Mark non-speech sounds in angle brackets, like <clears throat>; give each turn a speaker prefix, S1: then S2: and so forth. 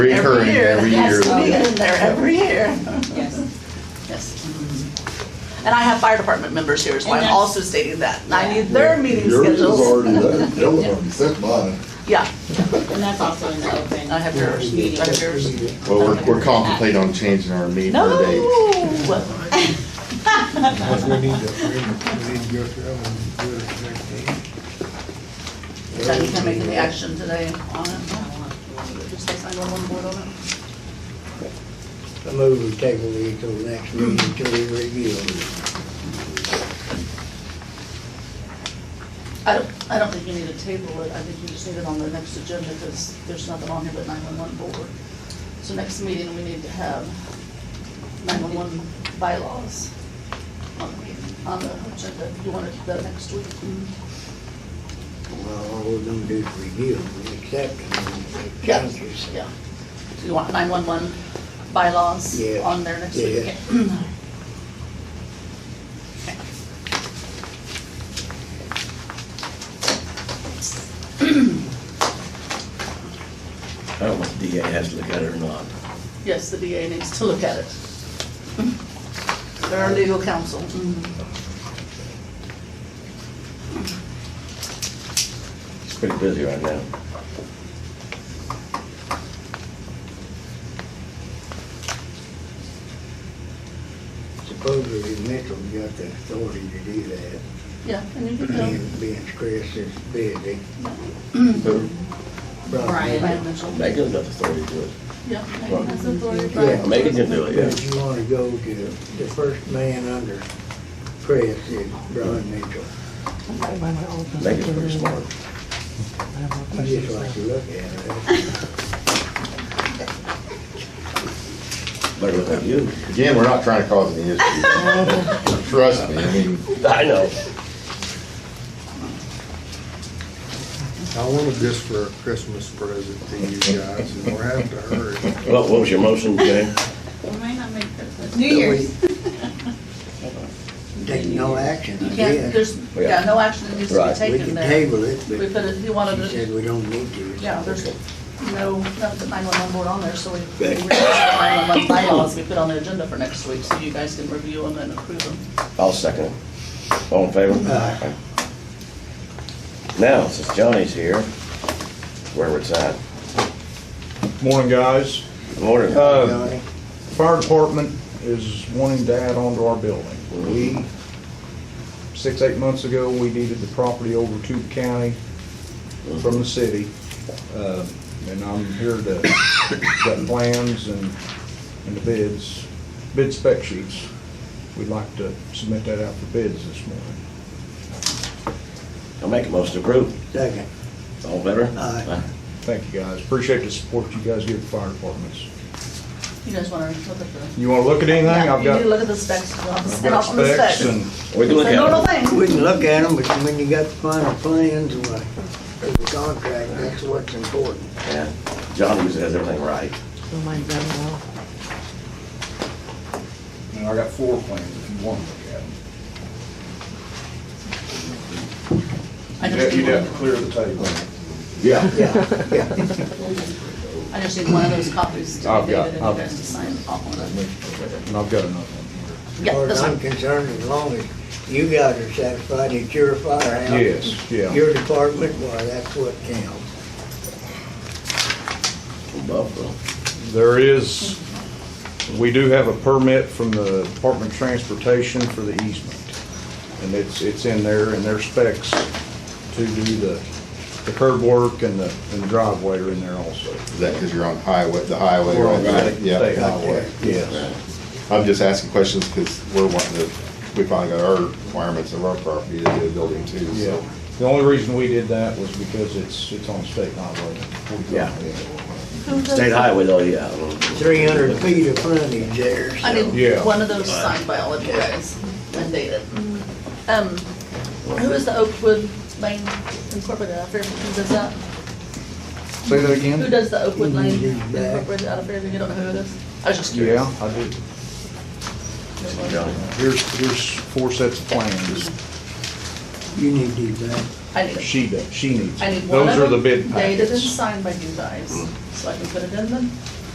S1: Recurring every year.
S2: Yes, we get in there every year.
S3: Yes.
S2: Yes. And I have fire department members here, so
S3: And
S2: I'm
S3: that's-
S2: also stating that. And I need their meeting
S4: Yours is
S2: schedules.
S4: already done, that was already set mine.
S2: Yeah,
S3: And that's also in the open.
S2: I have yours. I have yours.
S1: Well, we're, we're contemplating on changing our meeting
S2: No.
S5: We
S1: date.
S5: need to, we need to go through them and do it at the next meeting.
S2: Jackie, can I make any action today on it? Just like 911 board on it?
S6: I move we table these till the next meeting, till we review them.
S2: I don't, I don't think you need to table it. I think you just need it on the next agenda because there's nothing on here but 911 board. So next meeting, we need to have 911 bylaws on the- on the agenda. Do you want to do that next week?
S6: Well, all we're gonna do is review them, and accept them, and
S2: Yeah.
S6: changes.
S2: Yeah. So you want 911 bylaws
S6: Yeah.
S2: on there next week? <clears throat>
S6: Yeah.
S2: Okay.
S7: I don't know if DA has to look at it or not.
S2: Yes, the DA needs to look at it. They're our legal counsel. Mm-hmm.
S7: It's pretty busy right now.
S6: Supposedly Mitchell got the authority to do that,
S2: Yeah, and you can tell.
S6: and being Chris is busy.
S7: Who?
S3: Brian.
S2: Brian Mitchell.
S7: Megan's got the authority to do it.
S2: Yeah, Megan has authority.
S6: Yeah.
S7: Megan can do it,
S6: But
S7: yeah.
S6: if you wanna go to the first man under Chris is Brian Mitchell,
S7: Megan's pretty smart.
S6: You just like to look at it.
S7: Better than you.
S1: Again, we're not trying to cause any
S2: <laughs>
S1: issues. Trust me, I mean,
S7: I know.
S5: I want it just for a Christmas present to you guys, and we're having to hurry.
S7: What what was your motion, Jane?
S3: We might not make that. New Year's.
S6: <laughs> Take no action, I
S2: You can't,
S6: guess.
S2: there's, yeah, no action needs to be
S7: Right.
S6: We
S2: taken
S6: can
S2: there.
S6: table it,
S2: We
S6: but
S2: put it, he wanted
S6: she said
S2: to,
S6: we don't need to.
S2: yeah, there's no, not the 911 board on there, so we, we removed the 911 bylaws we put on the agenda for next week, so you guys can review them and approve them.
S7: I'll second it. All in favor?
S6: Aye.
S7: Now, since Johnny's here, where it's at.
S8: Morning, guys.
S7: Good Morning.
S8: Uh,
S6: Johnny?
S8: Fire department is wanting to add on to our building. We, six, eight months ago, we deeded the property over to the county from the city. Uh, And I'm here to get plans and, and the bids, bid spec sheets. We'd like to submit that out for bids this morning.
S7: I'll make a motion to approve.
S6: Second.
S7: All in favor?
S6: Aye.
S8: Thank you, guys. Appreciate the support you guys give the fire departments.
S2: You guys want to look at the.
S8: You wanna look at anything? I've
S2: You
S8: got,
S2: need to look at the specs, and I'll
S8: I've
S2: and I'll
S8: got
S2: from the specs.
S8: specs and
S7: We can look
S2: It's a normal
S7: at it.
S2: thing.
S6: We can look at them, but when you got the final plans and like, there's a contract, that's what's important.
S7: Yeah. John usually has everything right.
S8: And I got four plans if you want to look at them.
S2: I just need one,
S8: clear the table.
S6: Yeah, yeah.
S2: I just need one of those copies to
S8: I've
S2: be
S8: got-
S2: dated and
S8: I've-
S2: you guys to sign off on it.
S8: And I've got another one
S6: As
S2: Yeah,
S6: far as
S2: that's
S6: I'm
S2: one.
S6: concerned, as long as you guys are satisfied it's your firehouse.
S8: here. Yes, yeah.
S6: Your department, why, that's what counts.
S7: Buffalo.
S8: There is, we do have a permit from the Department of Transportation for the easement. And it's, it's in there, in their specs to do the, the curb work and the, and the driveway are in there also.
S1: is that because you're on highway, the highway?
S8: We're on
S1: right?
S8: state-
S1: Yeah.
S8: state highway, yes.
S1: I'm just asking questions because we're wanting to, we finally got our requirements of our property to do a building too, so.
S8: Yeah. The only reason we did that was because it's, it's on state highway.
S7: Yeah.
S2: Who does-
S7: State highway though, yeah.
S6: Three hundred feet of frontage there,
S2: I
S6: so.
S2: need
S8: Yeah.
S2: one of those signed by all of you guys and dated. Um, who is the Oakwood Lane Incorporated out of Fairfield, who does that?
S8: Say that again?
S2: Who does the Oakwood Lane
S6: Who's that?
S2: Incorporated out of Fairfield, you don't know who it is? I was just curious.
S8: Yeah, I do.
S7: Johnny.
S8: Here's, here's four sets of plans.
S6: You need to do that.
S2: I need,
S8: She does, she needs.
S2: I need
S8: it.
S2: one
S8: Those are
S2: of
S8: the
S2: them
S8: bid
S2: dated and
S8: packets.
S2: signed by you guys, so I can put it in the